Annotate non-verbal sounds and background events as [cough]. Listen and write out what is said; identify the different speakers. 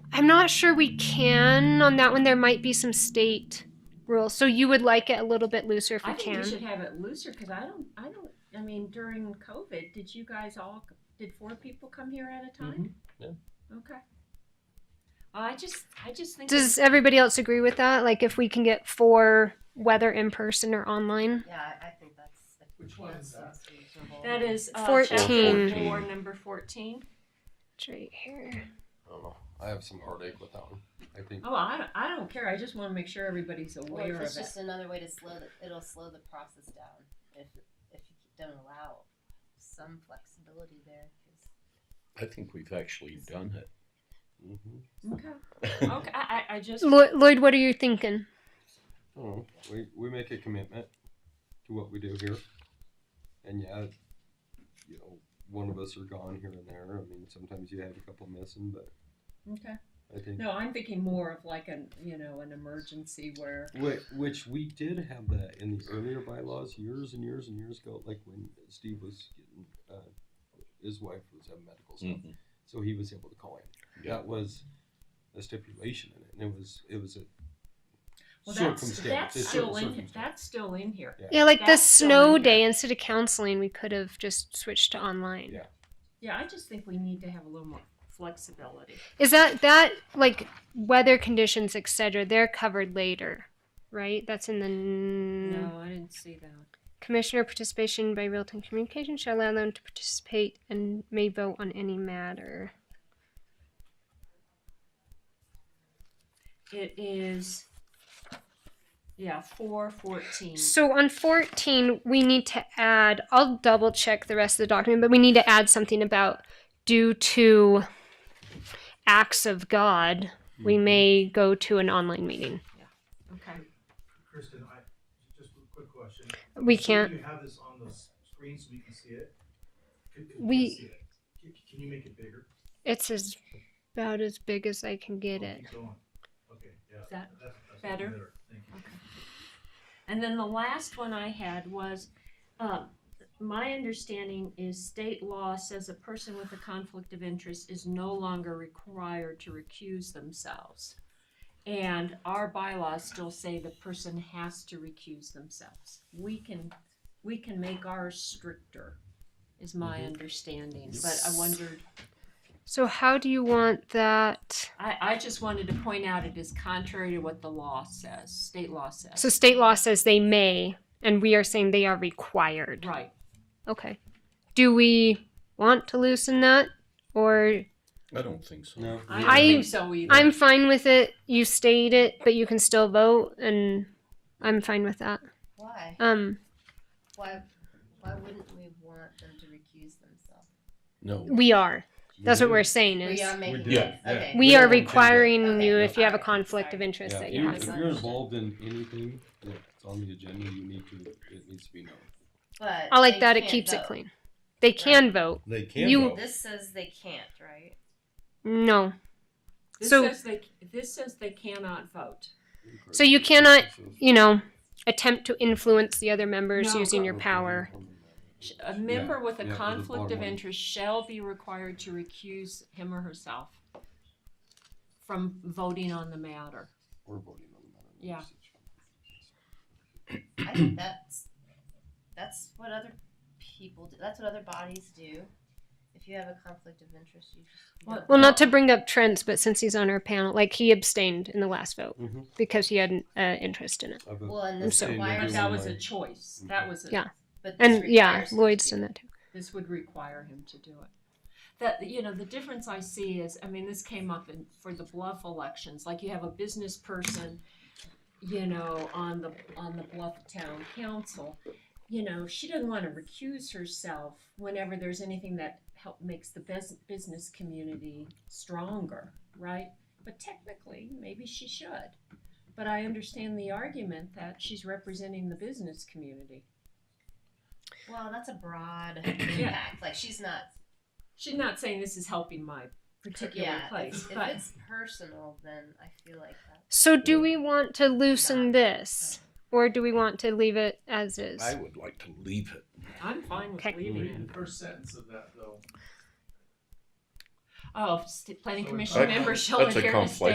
Speaker 1: sure we can on that one. There might be some state rules, so you would like it a little bit looser if
Speaker 2: I
Speaker 1: we
Speaker 2: think
Speaker 1: can.
Speaker 2: we should have it looser because I don't, I don't, I mean, during COVID, did you guys all, did four people come here at a time?
Speaker 3: Mhm,
Speaker 2: Okay. I just, I just think.
Speaker 1: Does everybody else agree with that? Like if we can get four, whether in person or online.
Speaker 4: Yeah, I, I think that's. I think
Speaker 5: Which one is that?
Speaker 4: seems reasonable.
Speaker 2: That is uh,
Speaker 1: Fourteen.
Speaker 2: chapter four, number fourteen.
Speaker 1: It's right here.
Speaker 3: I don't know. I have some heartache with that one. I think
Speaker 2: Oh, I, don't- I don't care. I just want to make sure everybody's
Speaker 4: Well,
Speaker 2: aware
Speaker 4: it's
Speaker 2: of it.
Speaker 4: just another way to slow, the- it'll slow the process down if, if you don't allow some flexibility there. 'cause-
Speaker 6: I think we've actually done it.
Speaker 3: Mhm.
Speaker 2: Okay.
Speaker 3: [laughs]
Speaker 2: Okay. I, I, I just.
Speaker 1: Lloyd, Lloyd, what are you thinking?
Speaker 3: I don't know. We we make a commitment to what we do here, and yeah, you know, one of us are gone here and there. I mean, sometimes you have a couple missing, but
Speaker 2: Okay.
Speaker 3: I think
Speaker 2: No, I'm thinking more of like an, you know, an emergency where.
Speaker 3: Which, which we did have that in the earlier bylaws years and years and years ago, like when Steve was getting, uh, his wife was having medical stuff,
Speaker 6: Mhm.
Speaker 3: so he was able to call in.
Speaker 6: Yeah.
Speaker 3: That was a stipulation in it, and it was it was a
Speaker 2: Well, that's,
Speaker 3: circumstance.
Speaker 2: that's
Speaker 3: It's a
Speaker 2: still in,
Speaker 3: circumstance.
Speaker 2: that's still in here.
Speaker 1: Yeah, like the
Speaker 2: That's still in
Speaker 1: snow
Speaker 2: here.
Speaker 1: day instead of counseling, we could have just switched to online.
Speaker 3: Yeah.
Speaker 2: Yeah, I just think we need to have a little more flexibility.
Speaker 1: Is that that like weather conditions, etc. They're covered later, right? That's in the n-
Speaker 2: No, I didn't see that.
Speaker 1: commissioner participation by real time communication shall allow them to participate and may vote on any matter.
Speaker 2: It is, yeah, four fourteen.
Speaker 1: So on 14, we need to add, I'll double check the rest of the document, but we need to add something about due to acts of God, we may go to an online meeting.
Speaker 2: Okay.
Speaker 5: Kristen, I, just a quick question.
Speaker 1: We
Speaker 5: So
Speaker 1: can't,
Speaker 5: You have this on the s- screen so we can see it? Can- can
Speaker 1: We-
Speaker 5: see it? Can can you make it bigger?
Speaker 1: it's as about as big as I can get
Speaker 5: Oh,
Speaker 1: it.
Speaker 5: keep going. Okay, yeah.
Speaker 2: Is that
Speaker 5: that's- that's
Speaker 2: better?
Speaker 5: Thank you.
Speaker 2: And then the last one I had was, uh, my understanding is state law says a person with a conflict of interest is no longer required to recuse themselves. And our bylaws still say the person has to recuse themselves. We can, we can make ours stricter, is my understanding, but I wondered,
Speaker 1: So how do you want that?
Speaker 2: I, I just wanted to point out it is contrary to what the law says, state law
Speaker 1: So
Speaker 2: says.
Speaker 1: state law says they may, and we are saying they are required.
Speaker 2: Right,
Speaker 1: Okay. Do we want to loosen that? Or
Speaker 6: I don't think so.
Speaker 3: no.
Speaker 2: I
Speaker 1: I-
Speaker 2: don't think so either.
Speaker 1: I'm fine with it. You state it, but you can still vote, and I'm fine with that.
Speaker 4: Why?
Speaker 1: Um,
Speaker 4: Why, why wouldn't we want them to recuse themselves?
Speaker 6: No.
Speaker 1: we are. That's
Speaker 3: Mm-hmm.
Speaker 1: what we're saying is
Speaker 4: We are making.
Speaker 6: do, yeah.
Speaker 4: Okay.
Speaker 1: we
Speaker 6: We
Speaker 1: are
Speaker 6: don't do that.
Speaker 1: requiring
Speaker 4: Okay.
Speaker 1: you if you have a
Speaker 4: Alright,
Speaker 1: conflict of
Speaker 4: sorry.
Speaker 1: interest
Speaker 3: Yeah,
Speaker 1: that
Speaker 3: you-
Speaker 1: you
Speaker 3: if
Speaker 1: have.
Speaker 3: you're involved in anything that's on the agenda, you need to it needs to be known.
Speaker 4: But
Speaker 1: I like
Speaker 4: they
Speaker 1: that. It
Speaker 4: can't
Speaker 1: keeps it
Speaker 4: vote.
Speaker 1: clean. They can vote.
Speaker 6: They can
Speaker 1: You-
Speaker 6: vote.
Speaker 4: This says they can't, right?
Speaker 1: No.
Speaker 2: This
Speaker 1: So-
Speaker 2: says they this says they cannot vote.
Speaker 1: So you cannot, you know, attempt to influence the other members
Speaker 2: No.
Speaker 1: using your power.
Speaker 2: Sh- A member with a
Speaker 3: yeah, with a
Speaker 2: conflict
Speaker 3: bottom
Speaker 2: of
Speaker 3: line.
Speaker 2: interest shall be required to recuse him or herself from voting on the matter.
Speaker 3: Or voting on the matter.
Speaker 2: Yeah.
Speaker 4: I think that's, that's what other people do, that's what other bodies do. If you have a conflict of interest, you just.
Speaker 2: Well-
Speaker 1: Well, not to bring up trends, but since he's on our panel, like he abstained in the last vote
Speaker 3: Mhm.
Speaker 1: because he had an uh, interest in it.
Speaker 3: I vote-
Speaker 4: Well, and
Speaker 1: I'm
Speaker 4: this,
Speaker 1: sorry.
Speaker 4: why are
Speaker 2: But
Speaker 3: Everyone
Speaker 4: some-
Speaker 2: that was a
Speaker 3: might.
Speaker 2: choice. That was a
Speaker 1: Yeah.
Speaker 4: but this
Speaker 1: And yeah,
Speaker 4: requires them
Speaker 1: Lloyd's
Speaker 4: to.
Speaker 1: done that too.
Speaker 2: this would require him to do it. That you know, the difference I see is, I mean, this came up in for the bluff elections. Like you have a business person, you know, on the on the bluff town council. You know, she doesn't want to recuse herself whenever there's anything that help makes the bus- business community stronger, right? But technically, maybe she should. But I understand the argument that she's representing the business community.
Speaker 4: Well, that's a broad
Speaker 2: [coughs]
Speaker 4: impact, like she's not,
Speaker 2: She's not saying this is helping my particular
Speaker 4: yeah,
Speaker 2: place,
Speaker 4: if, if
Speaker 2: but
Speaker 4: it's personal, then I feel like that.
Speaker 1: So, do we want to loosen this, or do we want to leave it as is?
Speaker 6: I would like to leave it.
Speaker 2: I'm fine with
Speaker 1: Okay.
Speaker 2: leaving
Speaker 3: Mhm.
Speaker 2: it.
Speaker 5: The first sentence of that though.
Speaker 2: Oh, st- planning
Speaker 5: So
Speaker 2: commission
Speaker 4: Oh,
Speaker 5: it's-
Speaker 2: member shall
Speaker 6: That's a
Speaker 2: adhere to
Speaker 6: conflict.